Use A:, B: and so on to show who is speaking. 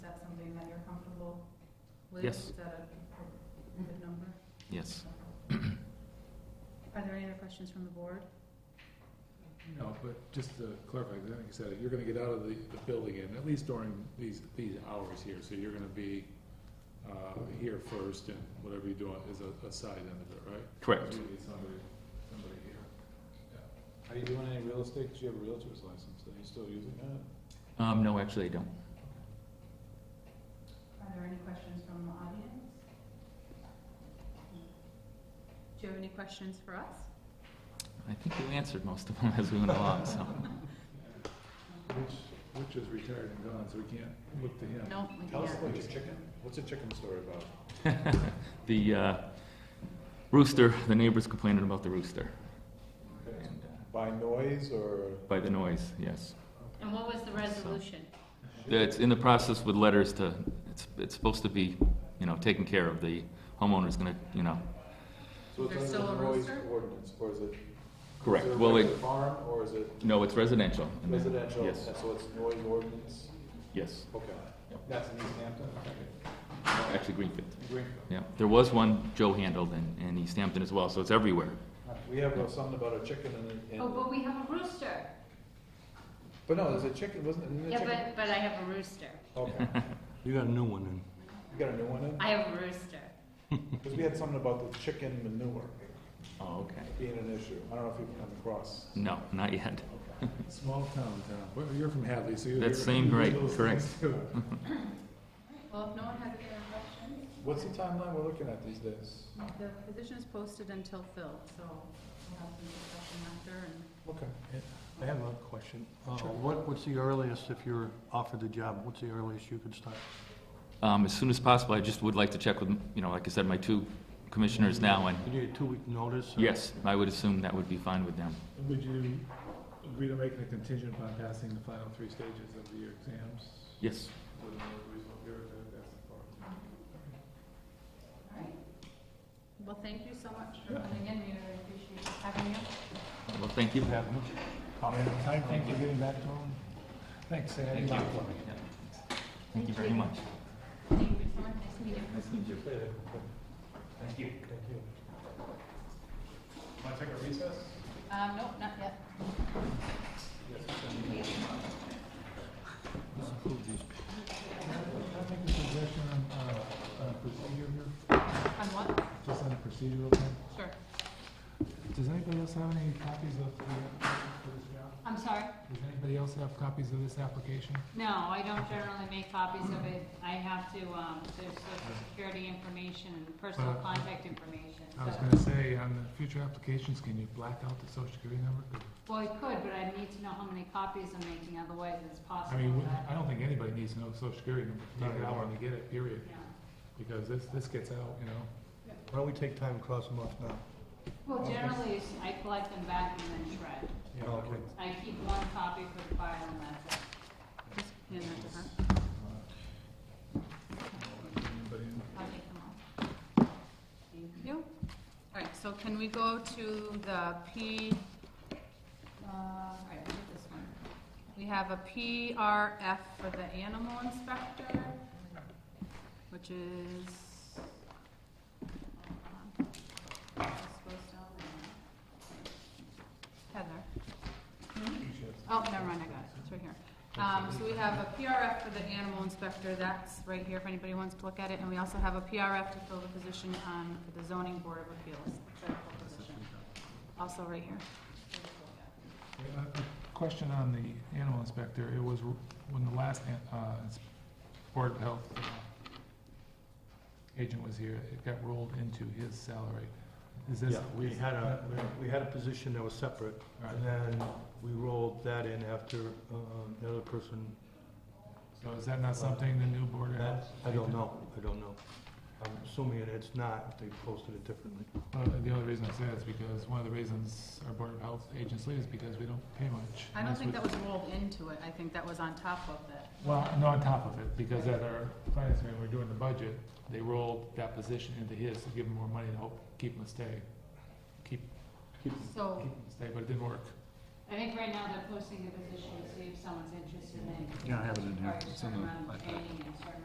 A: Liz,
B: Yes.
A: is that a good number?
B: Yes.
A: Are there any other questions from the board?
C: No, but just to clarify, I think you said, it, you're gonna get out of the, the building and at least during these, these hours here, so you're gonna be, uh, here first and whatever you do is a, a side end of it, right?
B: Correct.
C: You need somebody, somebody here.
D: Are you doing any real estate? 'Cause you have a realtor's license. Are you still using that?
B: Um, no, actually, I don't.
A: Are there any questions from the audience? Do you have any questions for us?
B: I think you answered most of them as we went along, so.
C: Which, which is retired and gone, so we can't look to him.
A: No, we
D: Tell us
A: can't.
D: about your chicken. What's a chicken story about?
B: The uh, rooster, the neighbors complaining about the rooster
D: Okay.
B: and uh,
D: By noise or?
B: by the noise, yes.
A: And what was the resolution?
B: It's in the process with letters to, it's, it's supposed to be, you know, taken care of. The homeowner's gonna, you know.
D: So it's
A: There's
D: under
A: still
D: the
A: a
D: noise
A: rooster?
D: ordinance, or is it?
B: Correct.
D: Is it a
B: Well, it-
D: regular farm, or is it
B: No, it's residential. And then-
D: residential?
B: Yes,
D: And so it's noise ordinance?
B: yes.
D: Okay.
B: Yep.
D: That's in East Hampton? Okay.
B: Actually, Greenfield.
D: Greenfield.
B: Yeah, there was one Joe handled in, in East Hampton as well, so it's everywhere.
D: All right. We have uh, something about a chicken and,
A: Oh, but
D: and,
A: we have a rooster.
D: but no, there's a chicken, wasn't it?
A: Yeah, but, but I have a rooster.
D: Okay.
E: You got a new one in.
D: You got a new one in?
A: I have a rooster.
D: Because we had something about the chicken manure
B: Oh, okay.
D: being an issue. I don't know if you've come across.
B: No, not yet.
C: Small town, town, but you're from Hadley, so you're.
B: That
C: you're-
B: seemed
C: you know
B: right,
C: those
B: correct.
C: things too.
A: Well, if no one has any other questions,
D: What's the timeline we're looking at these days?
A: the position is posted until filled, so we'll have some discussion after and.
D: Okay.
E: I have a question. Uh, What, what's the earliest, if you're offered the job, what's the earliest you could start?
B: Um, as soon as possible, I just would like to check with, you know, like I said, my two commissioners now, and
E: You need a two-week notice? or-
B: yes, I would assume that would be fine with them.
C: Would you agree to making a contingent upon passing the final three stages of your exams?
B: Yes.
C: Would the result here, that- that's the part.
A: All right. Well, thank you so much for coming in. We really appreciate having you.
B: Well, thank you.
E: Have much comment on time?
D: Thank you for getting back to him.
C: Thanks, Sam.
B: Thank you. Thank you very much.
A: Thank you so much. Nice meeting you.
B: Thank you.
D: Thank you. Want to take a recess?
A: Um, nope, not yet.
C: Can I make a suggestion on, uh, on procedure here?
A: On what?
C: Just on a procedural thing?
A: Sure.
C: Does anybody else have any copies of the, for this job?
A: I'm sorry?
C: Does anybody else have copies of this application?
A: No, I don't generally make copies of it. I have to, um, there's social security information and personal
C: Uh,
A: contact information.
C: I was
A: so-
C: gonna say, on the future applications, can you black out the social security number? 'Cause,
A: Well, I could, but I need to know how many copies I'm making, otherwise it's
C: I
A: possible
C: mean, we-
A: that,
C: I don't think anybody needs to know the social security number, take it out when you get it, period,
A: yeah.
C: because this, this gets out, you know?
E: Why don't we take time and cross them off now?
A: Well, generally, it's- I collect them back and then shred.
C: Yeah,
E: Oh, Okay.
C: okay.
A: I keep one copy for the file and that's it. Just hand that to her.
C: Uh-huh. Anybody in?
A: I'll take them all. Thank you. All right, so can we go to the P, uh, all right, we did this one. We have a PRF for the animal inspector, which is. hold on. This goes down there. Heather. Oh, never mind, I got it, it's right here. Um, so we have a PRF for the animal inspector, that's right here if anybody wants to look at it, and we also have a PRF to fill the position on, for the zoning board of appeals. That's the position. Also right here.
C: Uh, A Question on the animal inspector, it was r- when the last an- uh, ins- Board of Health uh, agent was here, it got rolled into his salary. Is this?
E: Yeah, we had a, we had a position that was separate,
C: Right.
E: and then we rolled that in after um, the other person.
C: So is that not something the new Board of Health?
E: I don't know, I don't know. I'm assuming that it's not, if they posted it differently.
C: Well, Uh, The only reason I say that is because one of the reasons our Board of Health agents leave is because we don't pay much.
A: I don't
C: Unless
A: think
C: we-
A: that was rolled into it, I think that was on top of it.
C: Well, no, on top of it, because at our finance meeting, we we're doing the budget, they rolled that position into his to give him more money to help keep him stay, keep, keep
A: So,
C: Stay, but it didn't work.
A: I think right now they're posting a position to see if someone's interested in.
E: Yeah, I have it in here.
A: Or
E: It's
A: turn
E: in the
A: around
E: iPad.
A: paying and turn